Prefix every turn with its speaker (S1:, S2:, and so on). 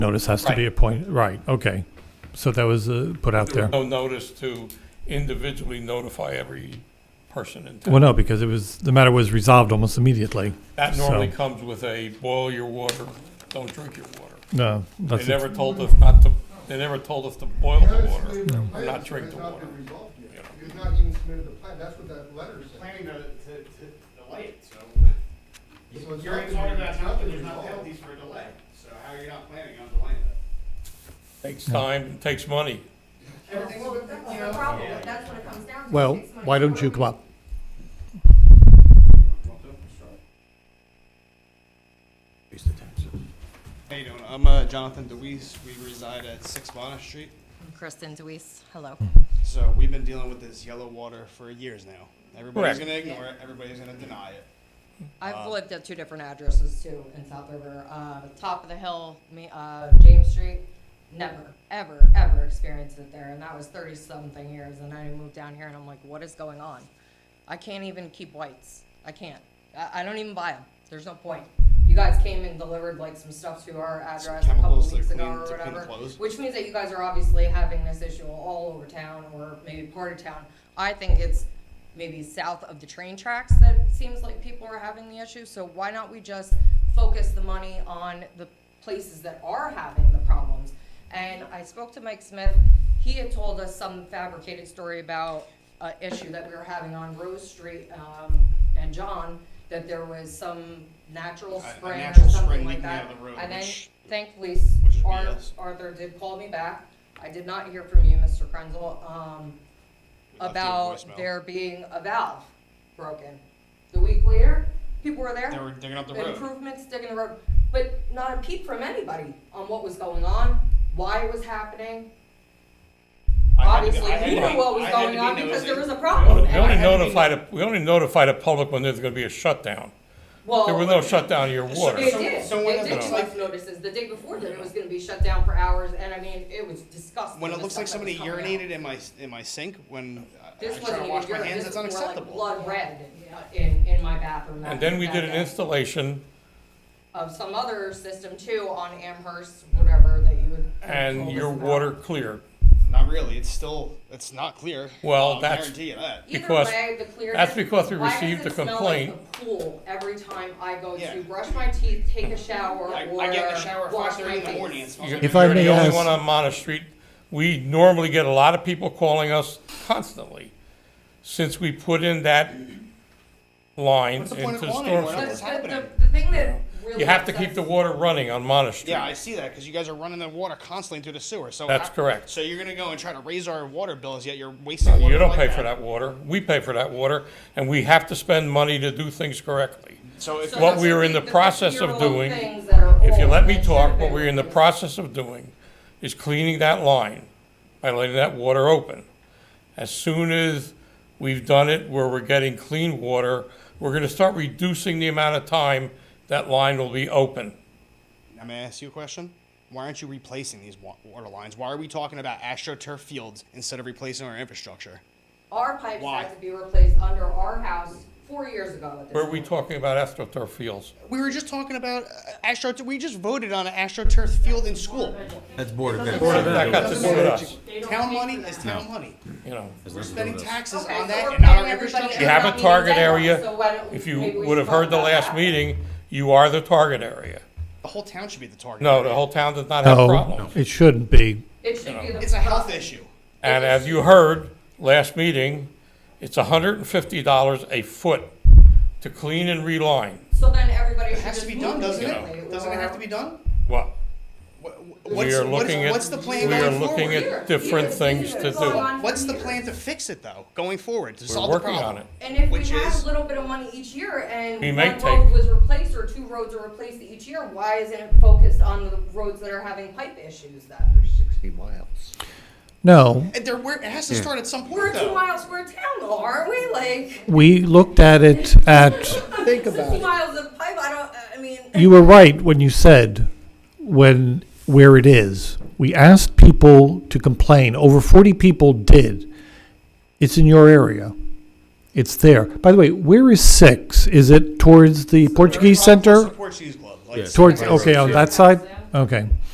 S1: Notice has to be
S2: Right.
S1: appointed, right, okay. So that was uh, put out
S2: There
S1: there.
S2: was no notice to individually notify every person in
S1: Well,
S2: town.
S1: no, because it was, the matter was resolved almost immediately.
S2: That normally
S1: so-
S2: comes with a boil your water, don't drink your water.
S1: No,
S2: They
S1: that's,
S2: never told us not to, they never told us to boil the water.
S3: Plan
S2: not drink
S3: has
S2: the
S3: not
S2: water.
S3: been resolved yet.
S2: Yeah.
S3: You've not even submitted the plan, that's what that letter said.
S4: planning to, to, to delay it, so.
S3: So it's
S4: You're
S3: not been-
S4: talking about
S3: it's not
S4: how
S3: been
S4: there's not
S3: resolved.
S4: penalties for delay, so how are you not planning on delaying that?
S2: Takes time, and takes money.
S5: Everything's with
S6: That's the problem, that's what it comes down to.
S7: Well,
S6: It takes money.
S7: why don't you come up?
S4: How you doing? I'm uh, Jonathan DeWeese. We reside at Six Bonner Street.
S6: Kristen Deweese, hello.
S7: Hmm.
S4: So we've been dealing with this yellow water for years now. Everybody's
S2: Correct.
S4: gonna ignore it, everybody's gonna deny it.
S6: I've lived at two different addresses too in South River. Uh, top of the hill, me, uh, James Street, never, ever, ever experienced it there. And that was thirty something years and I moved down here and I'm like, what is going on? I can't even keep whites. I can't. I, I don't even buy them. There's no point. You guys came and delivered like some stuff to our address a couple
S4: chemicals to
S6: weeks ago
S4: clean-
S6: or
S4: to clean
S6: whatever.
S4: clothes.
S6: Which means that you guys are obviously having this issue all over town or maybe part of town. I think it's maybe south of the train tracks that it seems like people are having the issue. So why not we just focus the money on the places that are having the problems? And I spoke to Mike Smith. He had told us some fabricated story about an issue that we were having on Rose Street um, and John, that there was some natural
S4: A- a
S6: spring or
S4: natural
S6: something
S4: spring
S6: like
S4: leaking
S6: that.
S4: out of the road,
S6: And then
S4: which-
S6: thankfully,
S4: Which is
S6: Ar-
S4: BS.
S6: Arthur did call me back. I did not hear from you, Mr. Krenzel,
S4: We left
S6: um,
S4: you a
S6: about
S4: voicemail.
S6: there being a valve broken. The week later, people were
S4: They were
S6: there,
S4: digging up the road.
S6: improvements, digging the road, but not a peep from anybody on what was going on, why it was happening.
S4: I had to-
S6: Obviously,
S4: I had
S6: we
S4: to
S6: knew
S4: be-
S6: what was
S4: I had to
S6: going
S4: be
S6: on because there
S4: nosy.
S6: was a
S2: We
S6: problem.
S2: only
S6: and I had to be-
S2: notify the, we only notify the public when there's gonna be a shutdown.
S6: Well,
S2: There was no shutdown of your
S6: They
S2: water.
S4: Some-
S6: did.
S4: someone
S6: They
S4: that
S6: did
S4: looks
S6: give us
S4: like-
S6: notices. The day before that, it was gonna be shut down for hours, and I mean, it was disgusting.
S4: When
S6: the
S4: it looks like
S6: stuff that
S4: somebody
S6: was coming out.
S4: urinated in my, in my sink, when I- I
S6: This
S4: try
S6: wasn't
S4: to
S6: even
S4: wash my
S6: urine.
S4: hands,
S6: This
S4: that's
S6: was more like
S4: unacceptable.
S6: Blood red in, in my bathroom. that-
S2: And then we
S6: that
S2: did an
S6: day.
S2: installation,
S6: Of some other system too on Amherst, whatever that you would.
S2: and
S6: told
S2: your
S6: us about.
S2: water cleared.
S4: Not really, it's still, it's not clear.
S2: Well,
S4: I'll
S2: that's-
S4: Guarantee you that.
S6: Either
S2: because-
S6: way, the clear-
S2: that's because we
S6: why does
S2: received
S6: it
S2: a
S6: smell like
S2: complaint.
S6: the Pool every time I go
S4: Yeah.
S6: to brush my teeth, take a shower, or
S4: I, I get in the shower at
S6: wash
S4: five thirty in
S6: my
S4: the
S6: face.
S4: morning. and It smells
S2: You're
S4: like
S7: If I
S2: you're
S7: may
S2: the only
S7: ask-
S2: one on Monmouth Street. We normally get a lot of people calling us constantly since we put in that line
S4: What's
S2: into
S4: the point of
S2: the
S4: calling
S2: storm.
S4: anyone?
S6: But
S2: sewer.
S4: What's
S6: the- the,
S4: happening?
S6: the thing that really.
S2: You have to keep the
S6: upsets-
S2: water running on Monmouth Street.
S4: Yeah, I see that because you guys are running the water constantly through the sewer. So
S2: That's
S4: how-
S2: correct.
S4: So you're gonna go and try to raise our water bills, yet you're wasting. water
S2: You don't
S4: like
S2: pay for that water. We pay for that water, and we have to spend money to do things correctly.
S4: So if
S6: So
S2: What
S6: that's
S2: we
S6: the
S2: were in
S6: thing,
S2: the process of
S6: 50-year-old
S2: doing,
S6: things that are
S2: If you
S6: old
S2: let
S6: and
S2: me
S6: should've
S2: talk,
S6: been
S2: what we're in the
S6: replaced.
S2: process of doing is cleaning that line by letting that water open. As soon as we've done it where we're getting clean water, we're gonna start reducing the amount of time that line will be open.
S4: I'm gonna ask you a question. Why aren't you replacing these wa- water lines? Why are we talking about astroturf fields instead of replacing our infrastructure?
S6: Our pipes
S4: Why?
S6: had to be replaced under our house four years ago at this
S2: Where are we
S6: point.
S2: talking about astroturf fields?
S4: We were just talking about uh, astroturf. We just voted on an astroturf field in school.
S8: That's Board of
S2: That got to do with us,
S4: Town money is town money.
S2: you know.
S4: We're spending taxes
S6: Okay,
S4: on
S6: so
S4: that
S6: we're
S4: and not
S6: paying
S4: on
S6: everybody
S4: infrastructure.
S2: You have
S6: not
S2: a
S6: meeting
S2: target
S6: deadlines, so
S2: area.
S6: why don't we-
S2: If you
S6: maybe we
S2: would have
S6: should talk
S2: heard the
S6: about
S2: last
S6: that.
S2: meeting, you are the target area.
S4: The whole town should be the target.
S2: No, the whole town does not have
S1: no,
S2: problems.
S1: it shouldn't be.
S6: It should be the.
S4: It's a health issue.
S2: And as you heard, last meeting, it's hundred and fifty dollars a foot to clean and reline.
S6: So then everybody
S4: It
S6: should
S4: has
S6: just
S4: to be
S6: move
S4: done, doesn't
S6: immediately,
S4: it? Doesn't it have
S6: or-
S4: to be done?
S2: Well,
S4: What- What's,
S2: we are
S4: what is-
S2: looking at,
S4: what's the plan
S2: we
S4: going
S2: are looking
S4: forward?
S2: at different
S6: Here,
S2: things to
S6: here, going on
S2: do.
S6: for
S4: What's the
S6: years.
S4: plan to fix it though, going forward to
S2: We're
S4: solve the
S2: working on
S4: problem?
S2: it.
S6: And if we
S4: Which
S6: had
S4: is-
S6: a little bit of money each year and
S2: We
S6: one
S2: may
S6: road
S2: take-
S6: was replaced or two roads are replaced each year, why isn't it focused on the roads that are having pipe issues then?
S8: Sixty miles.
S1: No,
S4: And there, where, it has to start at some
S6: We're
S4: point
S6: a two
S4: though.
S6: mile square town though, aren't we? Like,
S1: we looked at it at,
S8: Think about
S6: sixty
S8: it.
S6: miles of pipe, I don't, I mean.
S1: you were right when you said when, where it is. We asked people to complain. Over 40 people did. It's in your area. It's there. By the way, where is 6? Is it towards the Portuguese
S4: Across the
S1: Center?
S4: Portuguese Club, like
S8: Yes.
S1: Towards,
S8: Across the
S1: okay, on
S8: road,
S1: that side? Okay.